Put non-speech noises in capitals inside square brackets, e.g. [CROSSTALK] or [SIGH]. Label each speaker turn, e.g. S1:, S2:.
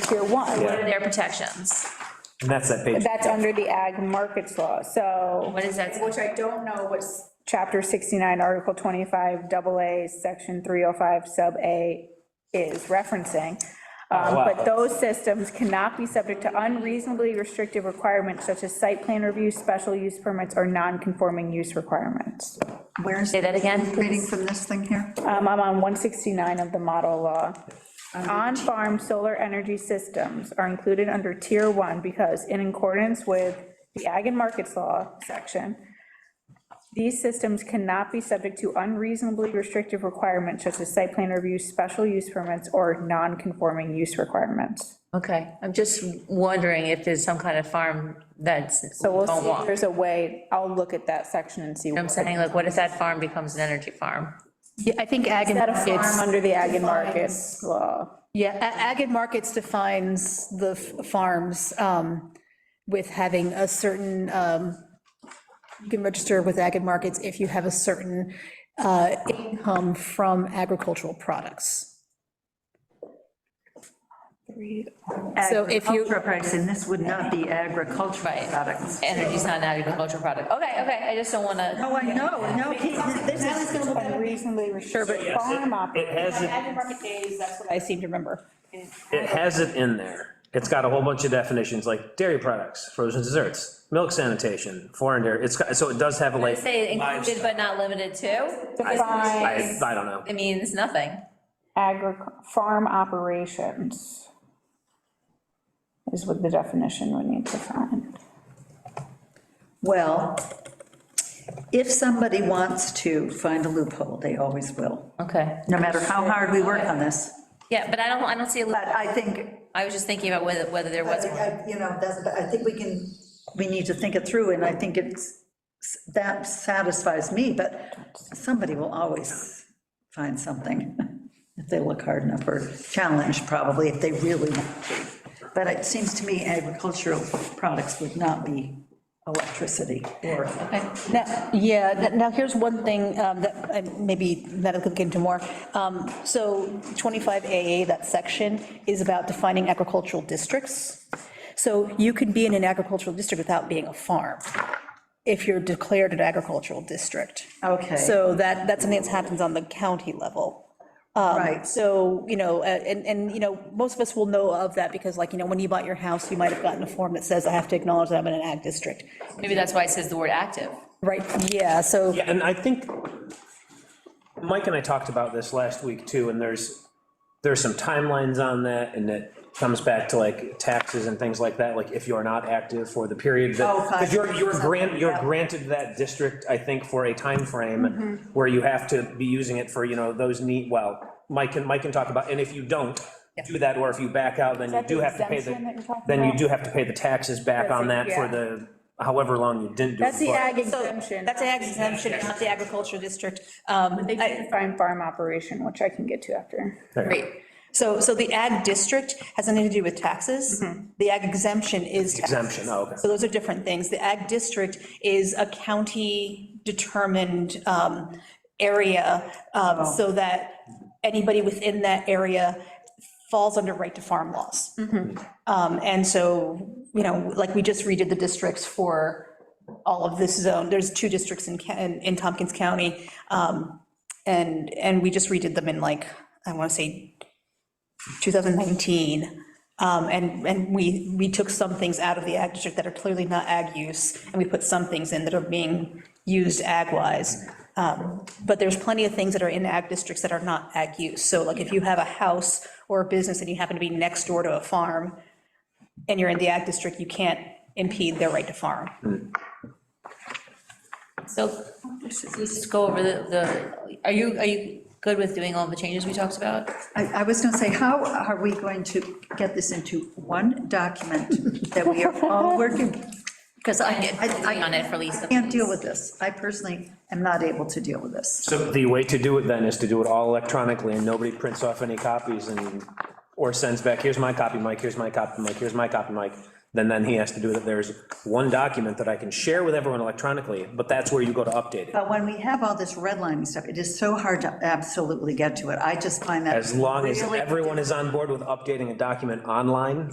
S1: tier one.
S2: What are their protections?
S3: And that's that page.
S1: That's under the ag markets law, so,
S2: What is that?
S1: which I don't know what's chapter 69, article 25, double A, section 305, sub A is referencing. Um,
S3: wow.
S1: But those systems cannot be subject to unreasonably restrictive requirements such as site plan review, special use permits, or non-conforming use requirements.
S4: Where's?
S2: Say that again,
S4: Reading
S2: please.
S4: from this thing here.
S1: Um, I'm on 169 of the model law. On-farm solar energy systems are included under tier one because in accordance with the Ag and Markets Law section, these systems cannot be subject to unreasonably restrictive requirements such as site plan review, special use permits, or non-conforming use requirements.
S2: Okay, I'm just wondering if there's some kind of farm that's,
S1: So we'll
S2: don't
S1: see if
S2: want. You know
S1: there's a way, I'll look at that section and see.
S2: what I'm saying, like, what if that farm becomes an energy farm?
S5: Yeah, I think ag
S1: Is
S5: and
S1: that a farm
S5: markets,
S1: under the Ag and Markets Law?
S5: yeah, a- ag and markets defines the f- farms um, with having a certain, um, you can register with ag and markets if you have a certain uh, income from agricultural products. So if you-
S4: Agricultural products, and this would not be agricultural
S2: Right.
S4: products.
S2: Energy's not an agricultural product. Okay, okay, I just don't want to.
S4: No, I know, no, he- this is,
S1: Unreasonably restricted farm
S3: It
S1: operation.
S3: has it,
S1: Market days, that's what I seem to remember.
S3: it has it in there. It's got a whole bunch of definitions, like dairy products, frozen desserts, milk sanitation, foreign dairy, it's, got- so it does have a like.
S2: Say included but not limited to?
S3: I, I don't know.
S2: It means nothing.
S1: Agric, farm operations is what the definition would need to find.
S4: well, if somebody wants to find a loophole, they always will,
S2: Okay.
S4: no matter how hard we work on this.
S2: Yeah, but I don't, I don't see, a
S4: But
S2: li-
S4: I think,
S2: I was just thinking about whether, whether there
S4: I
S2: was
S4: think,
S2: one.
S4: I- you know, that's, I think we can, we need to think it through, and I think it's, that satisfies me, but somebody will always find something [LAUGHS] if they look hard enough, or challenge probably, if they really want to. But it seems to me agricultural products would not be electricity or
S5: Now, yeah, n- now here's one thing um, that I- maybe that'll look into more. Um, So 25AA, that section, is about defining agricultural districts. So you can be in an agricultural district without being a farm, if you're declared an agricultural district.
S4: Okay.
S5: So that, that's something that happens on the county level.
S4: Right,
S5: So, you know, uh, and, and, you know, most of us will know of that, because like, you know, when you bought your house, you might have gotten a form that says, I have to acknowledge that I'm in an ag district.
S2: Maybe that's why it says the word active.
S5: Right, yeah, so.
S3: Yeah, and I think Mike and I talked about this last week too, and there's, there's some timelines on that, and it comes back to like taxes and things like that, like if you're not active for the period that,
S4: Oh, five
S3: because you're, you're
S4: years,
S3: grant, you're
S4: yeah.
S3: granted that district, I think, for a time
S1: Mm-hmm.
S3: frame where you have to be using it for, you know, those need, well, Mike can, Mike can talk about, and if you don't do that, or if you back out, then you
S1: that
S3: do
S1: the
S3: have to pay
S1: exemption that you're
S3: the,
S1: talking
S3: then you
S1: about?
S3: do have to pay the taxes back
S1: That's
S3: on
S1: it,
S3: that for
S1: yeah.
S3: the, however long you didn't do it.
S1: That's the
S3: for.
S1: ag
S5: So,
S1: exemption.
S5: That's the ag exemption, not the agricultural district. Um,
S1: They
S5: I-
S1: can find farm operation, which I can get to after.
S5: Great. So, so the ag district has nothing to do with taxes. The ag exemption is. taxes.
S3: Mm-hmm. Exemption, oh, okay.
S5: So those are different things. The ag district is a county-determined um, area um,
S3: Oh.
S5: so that anybody within that area falls under right to farm laws.
S3: Mm-hmm.
S5: Um, And so, you know, like we just redid the districts for all of this zone. There's two districts in, Ca- in in Tompkins County. um, And, and we just redid them in like, I want to say 2019. um, And, and we, we took some things out of the ag district that are clearly not ag use, and we put some things in that are being used ag-wise. Um, But there's plenty of things that are in ag districts that are not ag use. So like if you have a house or a business and you happen to be next door to a farm, and you're in the ag district, you can't impede their right to farm.
S2: So let's just go over the, the, are you, are you good with doing all the changes we talked about?
S4: I, I was gonna say, how are we going to get this into one document that we are all working? Because I, I,
S2: Working on it for
S4: I
S2: Lisa,
S4: can't deal
S2: please.
S4: with this, I personally am not able to deal with this.
S3: So the way to do it then is to do it all electronically and nobody prints off any copies and, or sends back, here's my copy, Mike, here's my copy, Mike, here's my copy, Mike. then then he has to do that, there's one document that I can share with everyone electronically, but that's where you go to update it.
S4: But when we have all this redlining stuff, it is so hard to absolutely get to it. I just find that.
S3: As long as
S4: really
S3: everyone is on board with updating a document online,